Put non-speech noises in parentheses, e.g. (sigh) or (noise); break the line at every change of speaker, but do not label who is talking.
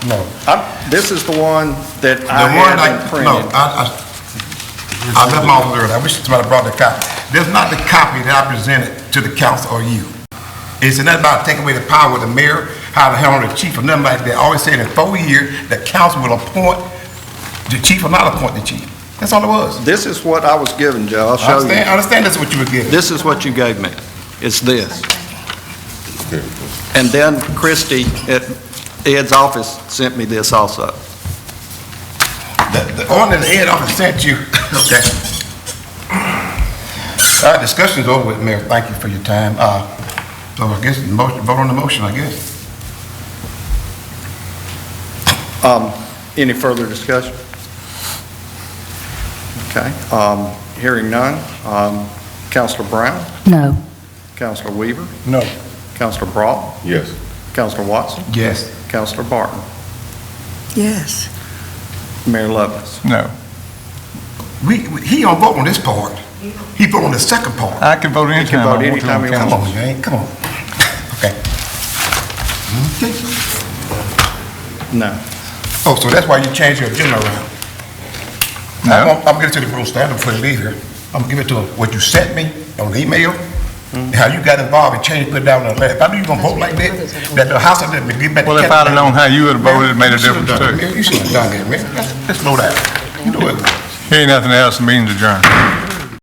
No.
I'm- This is the one that I
The one I,
have
no,
printed.
I, I, I left my office early, I wish somebody brought the copy. There's not the copy that I presented to the council or you. It's nothing about taking away the power of the mayor, how to handle the chief, or nothing like that. I Always saying in four years, the council will appoint the chief or not appoint the chief. That's all it was.
This is what I was given, Joe, I'll
I
show
understand, I
you.
understand that's what you were getting.
This is what you gave me. It's this. And then Christie at Ed's office sent me this also.
The, the ordinance the head office sent you, (laughs) okay. All right, discussion's over with, Mayor. Thank you for your time. Uh, so I guess, the motion, vote on the motion, I guess.
Um, Any further discussion? Okay, um, hearing none. Um, Counselor Brown,
No.
Counselor Weaver,
No.
Counselor Broughton,
Yes.
Counselor Watson,
Yes.
Counselor Barton,
Yes.
Mayor Lovelace.
No.
We, we- he don't vote on this part. He vote on the second part.
I can vote anytime I
vote
want to.
anytime
on
you
council.
Come on, man, come on. Okay. Okay.
No.
Oh, so that's why you changed your agenda around? I'm
No,
gonna- I'm gonna get to the rules standard before you leave here. I'm gonna give it to him, what you sent me on the email,
Mm-hmm.
how you got involved and changed, put it down on the letter. If I knew you were gonna vote like that, that the house had been given back. to
well, if I'd have
Captain-
known how you would have voted, it made a
You should've done it,
difference too.
man. You should have done that, man. Let's slow down. You know it.
Here ain't nothing else, the meeting's adjourned.